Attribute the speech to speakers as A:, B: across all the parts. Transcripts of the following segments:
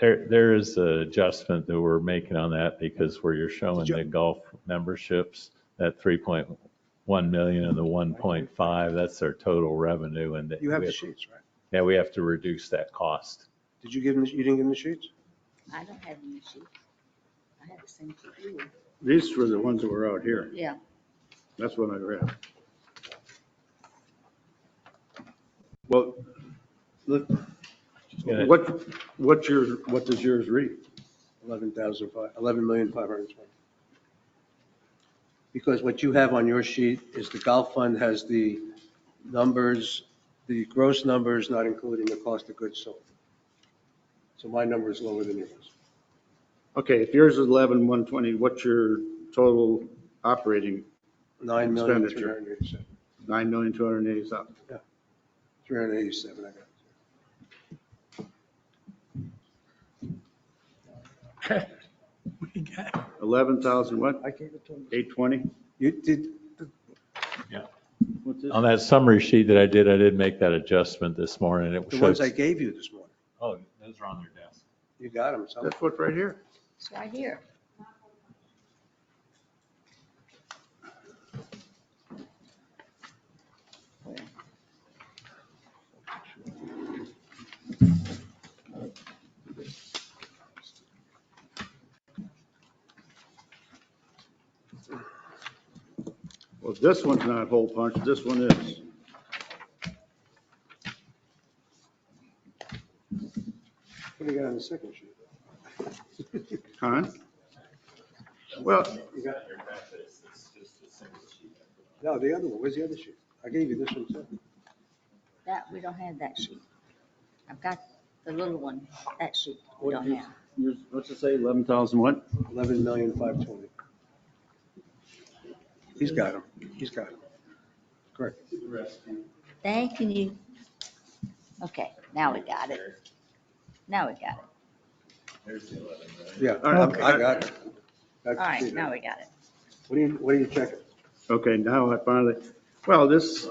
A: There, there is an adjustment that we're making on that because where you're showing
B: Did you-
A: the golf memberships, that 3.1 million and the 1.5, that's their total revenue and that.
B: You have
A: we
B: the sheets, right?
A: Yeah, we have to reduce that cost.
B: Did you give them, you didn't give them the sheets?
C: I don't have any sheets. I have the same sheet you do.
D: These were the ones that were out here.
C: Yeah,
D: That's what I read. Well, look,
A: gonna-
D: what, what's your, what does yours read?
B: Eleven thousand five, eleven million five hundred and twenty. Because what you have on your sheet is the golf fund has the numbers, the gross numbers, not including the cost of goods sold. So my number is lower than yours.
D: Okay, if yours is eleven, one twenty, what's your total operating?
B: Nine million, three
D: Expenditure.
B: hundred and eighty-seven,
D: Nine million, two hundred and eighty thousand.
B: three hundred and eighty-seven, I got it.
D: Eleven thousand what?
B: I gave it to him.
D: Eight twenty?
B: You did,
D: What's this?
A: On that summary sheet that I did, I did make that adjustment this morning. It
B: the ones
A: shows.
B: I gave you this morning,
A: Oh, those are on their desk.
B: you got them, so.
D: That's what's right here.
C: it's right here. Where?
D: Well, this one's not hole punched, this one is.
B: What do you got on the second sheet?
D: Huh? Well,
B: You got- No, the other one, where's the other sheet? I gave you this one too.
C: That, we don't have that sheet. I've got the little one, that sheet we don't have.
D: yours- what's it say, eleven thousand what?
B: Eleven million, five twenty. He's got him. He's got him. Correct.
C: Thank you. Okay, now we got it. Now we got it.
B: Yeah, I I got it. All
C: All right, now we got it.
B: What are you, what are you checking?
D: Okay, now I finally, well, this,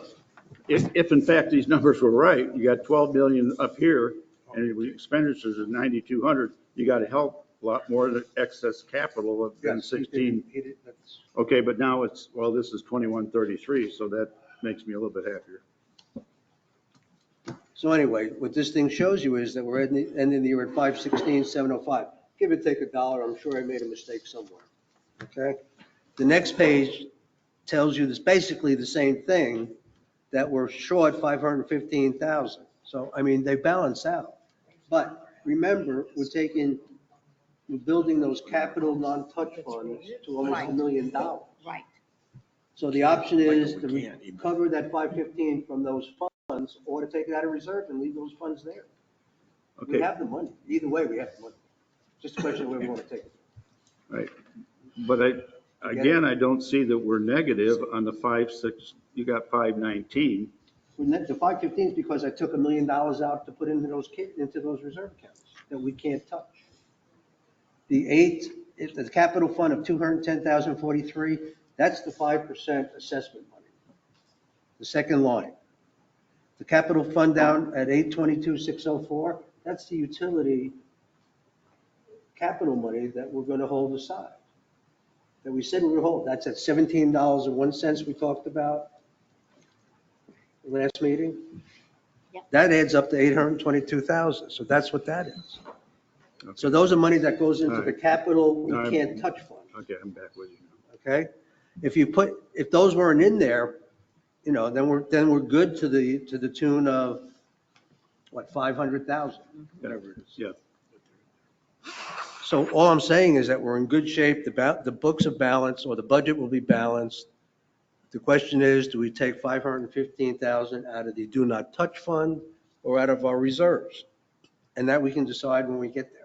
D: if, if in fact these numbers were right, you got 12 million up here and the expenditures of 9,200, you got a hell of a lot more than excess capital of than
B: Yes, he did-
D: 16.
B: he did- that's-
D: Okay, but now it's, well, this is 2133, so that makes me a little bit happier.
B: So anyway, what this thing shows you is that we're ending, ending the year at five sixteen, seven oh five. Give or take a dollar, I'm sure I made a mistake somewhere, okay? The next page tells you this, basically the same thing, that we're short five hundred fifteen thousand. So, I mean, they balance out. But remember, we're taking, we're building those capital non-touch funds to almost a
C: Right.
B: million dollars.
C: Right.
B: So the option is to recover that five fifteen from those funds or to take it out of reserve and leave those funds there. We
D: Okay,
B: have the money. Either way, we have the money. Just a question of where we want to take it.
D: right. But I, again, I don't see that we're negative on the 5, 6, you got 519.
B: We net- The five fifteen is because I took a million dollars out to put into those, ca- into those reserve accounts that we can't touch. The eight, is the capital fund of two hundred and ten thousand forty-three, that's the five percent assessment money. The second line. The capital fund down at eight twenty-two six oh four, that's the utility capital money that we're gonna hold aside. That we said we would hold, that's at seventeen dollars and one cents we talked about last meeting?
C: Yep.
B: That adds up to eight hundred and twenty-two thousand, so that's what that is. So those are money that goes into the
D: Alright.
B: capital we
D: Alright.
B: can't touch fund,
D: Okay, I'm back with you now.
B: okay? If you put, if those weren't in there, you know, then we're, then we're good to the, to the tune of, what, five hundred thousand, whatever it is.
D: Yeah,
B: So all I'm saying is that we're in good shape, the, ba- the books are balanced, or the budget will be balanced. The question is, do we take 515,000 out of the do not touch fund or out of our reserves? And that we can decide when we get there.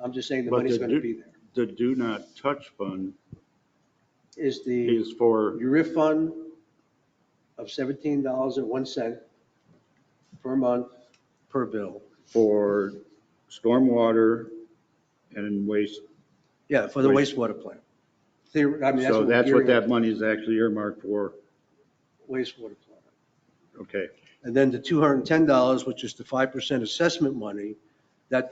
B: I'm just saying the
D: But
B: money's
D: the
B: going to
D: do-
B: be there.
D: the do not touch fund
B: Is the
D: is for.
B: URIF fund of $17.01 per month, per bill.
D: for stormwater and waste.
B: Yeah, for the
D: Waste-
B: wastewater plant. Theor- I mean,
D: So that's
B: we're
D: what that
B: gearing up,
D: money is actually earmarked for.
B: Wastewater plant.
D: Okay,
B: And then the $210, which is the 5% assessment money,